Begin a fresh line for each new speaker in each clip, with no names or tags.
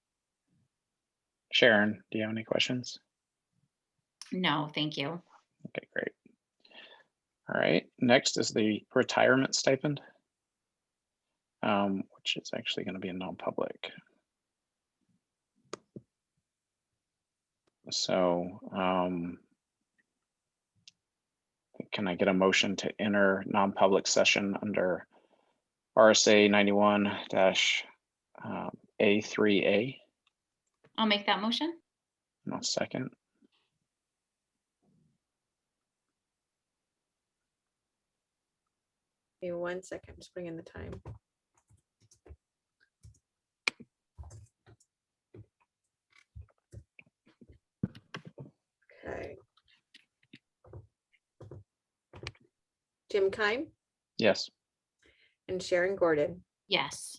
Sharon, do you have any questions?
No, thank you.
Okay, great. All right, next is the retirement stipend. Um, which is actually gonna be a non-public. So, um. Can I get a motion to enter non-public session under RSA ninety-one dash um, A three A?
I'll make that motion.
No second.
Give me one second, just bring in the time. Okay. Jim Keim
Yes,
and Sharon Gordon,
Yes.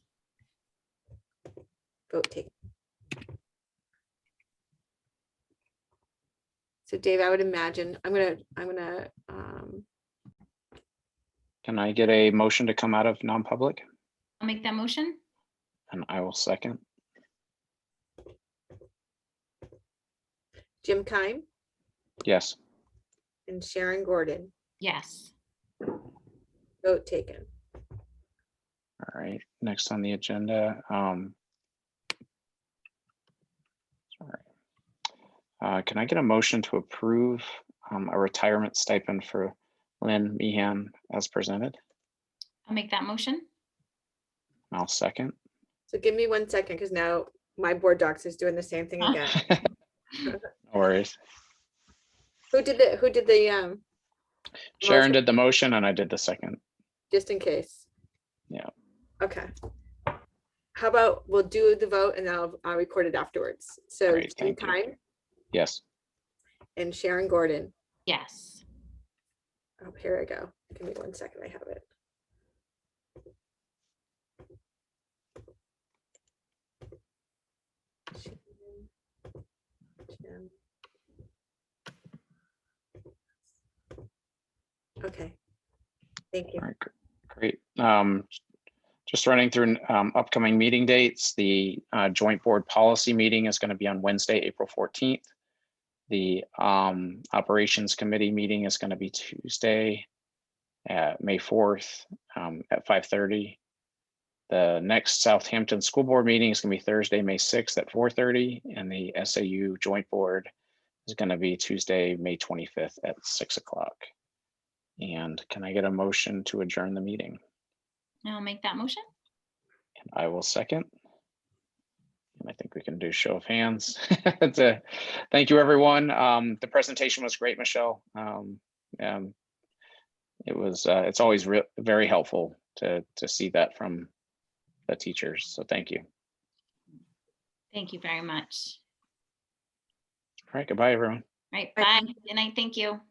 vote taken. So Dave, I would imagine, I'm gonna, I'm gonna, um,
can I get a motion to come out of non-public?
I'll make that motion.
And I will second.
Jim Keim
Yes,
and Sharon Gordon,
Yes.
vote taken.
all right, next on the agenda, um. Sorry. Uh, can I get a motion to approve, um, a retirement stipend for Lynn Meehan as presented?
I'll make that motion.
And I'll second.
So give me one second, because now my board docs is doing the same thing
Huh?
again.
No worries.
Who did the, who did the, um,
Sharon did the motion and I did the second.
just in case?
Yeah.
Okay. How about, we'll do the vote and I'll, I'll record it afterwards. So
Great,
Jim
thank you.
Keim
Yes,
and Sharon Gordon.
Yes.
Oh, here I go. Give me one second. I have it. Sharon, Jim. Okay. Thank you.
all right, gr- great. Um, just running through, um, upcoming meeting dates, the, uh, joint board policy meeting is gonna be on Wednesday, April fourteenth. The, um, operations committee meeting is gonna be Tuesday, uh, May fourth, um, at five thirty. The next Southampton School Board meeting is gonna be Thursday, May sixth at four thirty, and the SAU joint board is gonna be Tuesday, May twenty-fifth at six o'clock. And can I get a motion to adjourn the meeting?
I'll make that motion.
And I will second. And I think we can do show of hands. That's a- Thank you, everyone. Um, the presentation was great, Michelle. Um, um, it was, uh, it's always re- very helpful to, to see that from the teachers. So thank you. All
Thank you very much.
right, goodbye, everyone.
Right.
Bye.
Bye. Good night. Thank you.